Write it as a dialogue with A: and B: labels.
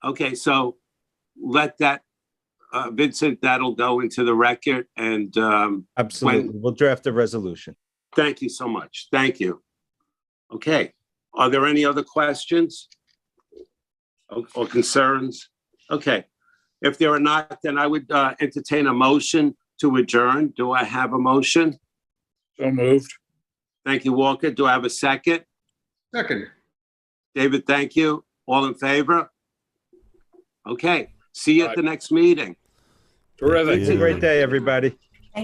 A: Okay, so let that, uh, Vincent, that'll go into the record and, um,
B: Absolutely. We'll draft a resolution.
A: thank you so much. Thank you. Okay, are there any other questions? Or or concerns? Okay, if there are not, then I would, uh, entertain a motion to adjourn. Do I have a motion?
C: So moved.
A: Thank you, Walker. Do I have a second?
D: Second.
A: David, thank you. All in favor? Okay, see you at the next meeting.
C: Terrific.
B: Have a great day, everybody.